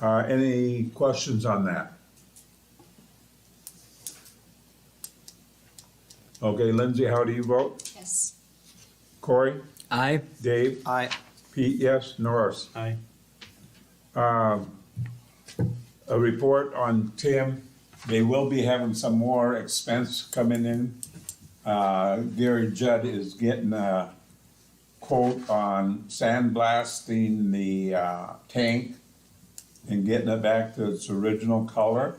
Uh, any questions on that? Okay, Lindsay, how do you vote? Yes. Corey? Aye. Dave? Aye. Pete, yes. Norris? Um, Aye. a report on Tim. They will be having some more expense coming in. Uh, Gary Judd is getting a quote on sandblasting the, uh, tank and getting it back to its original color.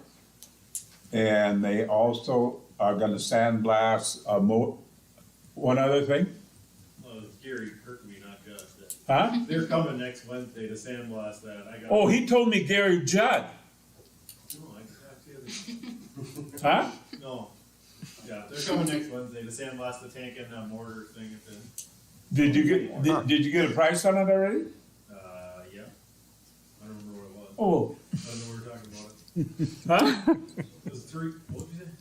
And they also are gonna sandblast a mo, one other thing, Uh, Gary hurt me, not Gus. That- huh? They're coming next Wednesday to sandblast that. I got. Oh, he told me Gary Judd, No, I got the other- huh? No. Yeah, they're coming next Wednesday to sandblast the tank and that mortar thing at the, Did you get, did, did you get a price on it already? uh, yeah. I don't remember what it was. Oh, I don't know what we're talking about. huh? It was three, what did you say? It-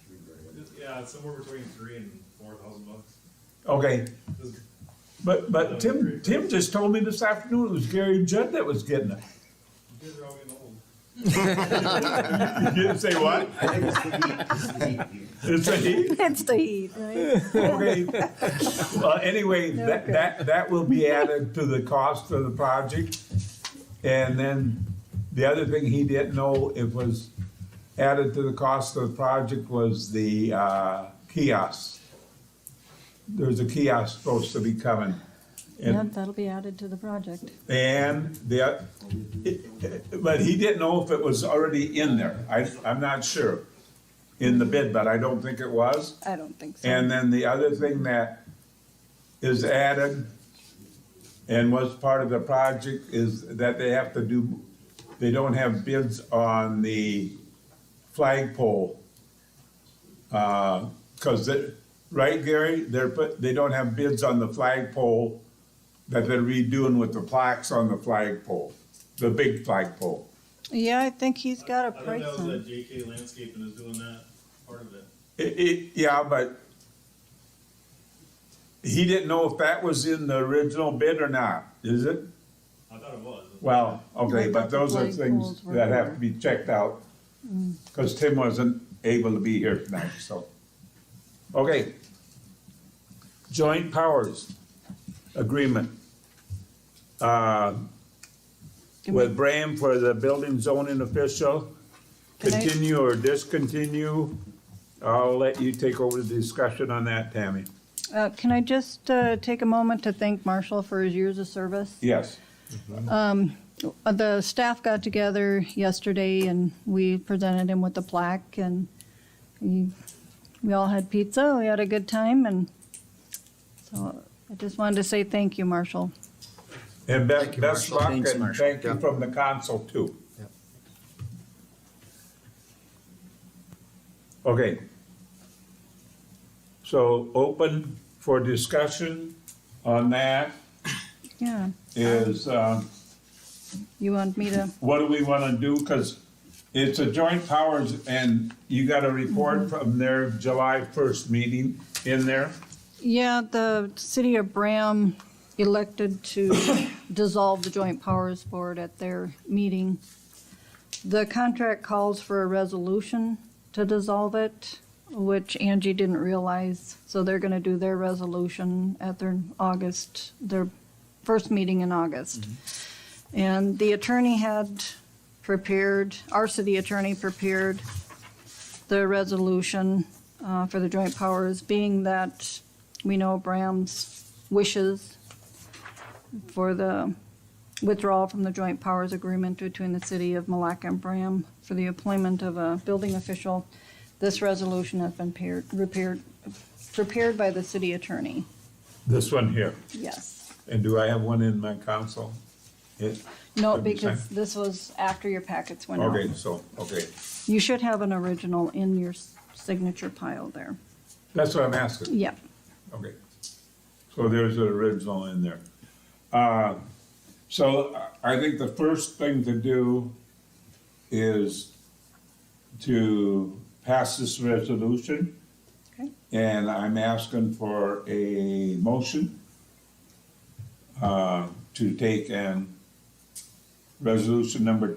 Yeah, it's somewhere between three and four thousand bucks. Okay, It was- But, but Tim, Tim just told me this afternoon it was Gary Judd that was getting it. You guys are all getting old. You didn't say what? I think it's the heat, it's the heat here. It's a he? That's the heat, right? Okay. Well, anyway, that, that, that will be added to the cost of the project. And then the other thing he didn't know it was added to the cost of the project was the, uh, kiosk. There's a kiosk supposed to be coming. And Yep, that'll be added to the project. And the, uh, but he didn't know if it was already in there. I, I'm not sure in the bid, but I don't think it was. I don't think so. And then the other thing that is added and was part of the project is that they have to do, they don't have bids on the flagpole. Uh, cause it, right, Gary, they're, put they don't have bids on the flagpole that they're redoing with the plaques on the flagpole, the big flagpole. Yeah, I think he's got a I think price that was on that JK Landscaping is doing that part of it. It, it, yeah, but he didn't know if that was in the original bid or not, is it? I thought it was. Well, okay, but those are Like things holes were that have to there. Mm. be checked out, because Tim wasn't able to be here tonight, so. Okay. Joint powers agreement. Uh, With Bram for the building zoning official, Can I- continue or discontinue. I'll let you take over the discussion on that, Tammy. Uh, Can I just uh, take a moment to thank Marshall for his years of service? Yes. Uh, The staff got together yesterday and we presented him with the plaque and he- we all had pizza, we had a good time and so I just wanted to say thank you, Marshall. And Thank best, best you, Marshall. luck Thanks, and Marshall. thank you Yeah. from the council too. Yeah. Okay. So open for discussion on that Yeah, is, um, you want me to, what do we want to do? Because it's a joint powers and you got a Mm-hmm. report from their July 1st meeting in there. yeah, the city of Bram elected to dissolve the Joint Powers Board at their meeting. The contract calls for a resolution to dissolve it, which Angie didn't realize. So they're gonna do their resolution at their August, their first meeting in August. And the attorney had prepared, our city attorney prepared the resolution uh, for the joint powers, being that we know Bram's wishes for the withdrawal from the joint powers agreement between the city of Malacca and Bram for the employment of a building official. This resolution has been paired, repaired, prepared by the city attorney. This one here. Yes. And do I have one in my council? It- No, That'd be because fine. this was after your packets went out. Okay, so, okay. You should have an original in your s- signature pile there. That's what I'm asking. Yep. Okay. So there's an original in there. Uh, So I- I think the first thing to do is to pass this resolution. Okay. And I'm asking for a motion uh, to take um resolution number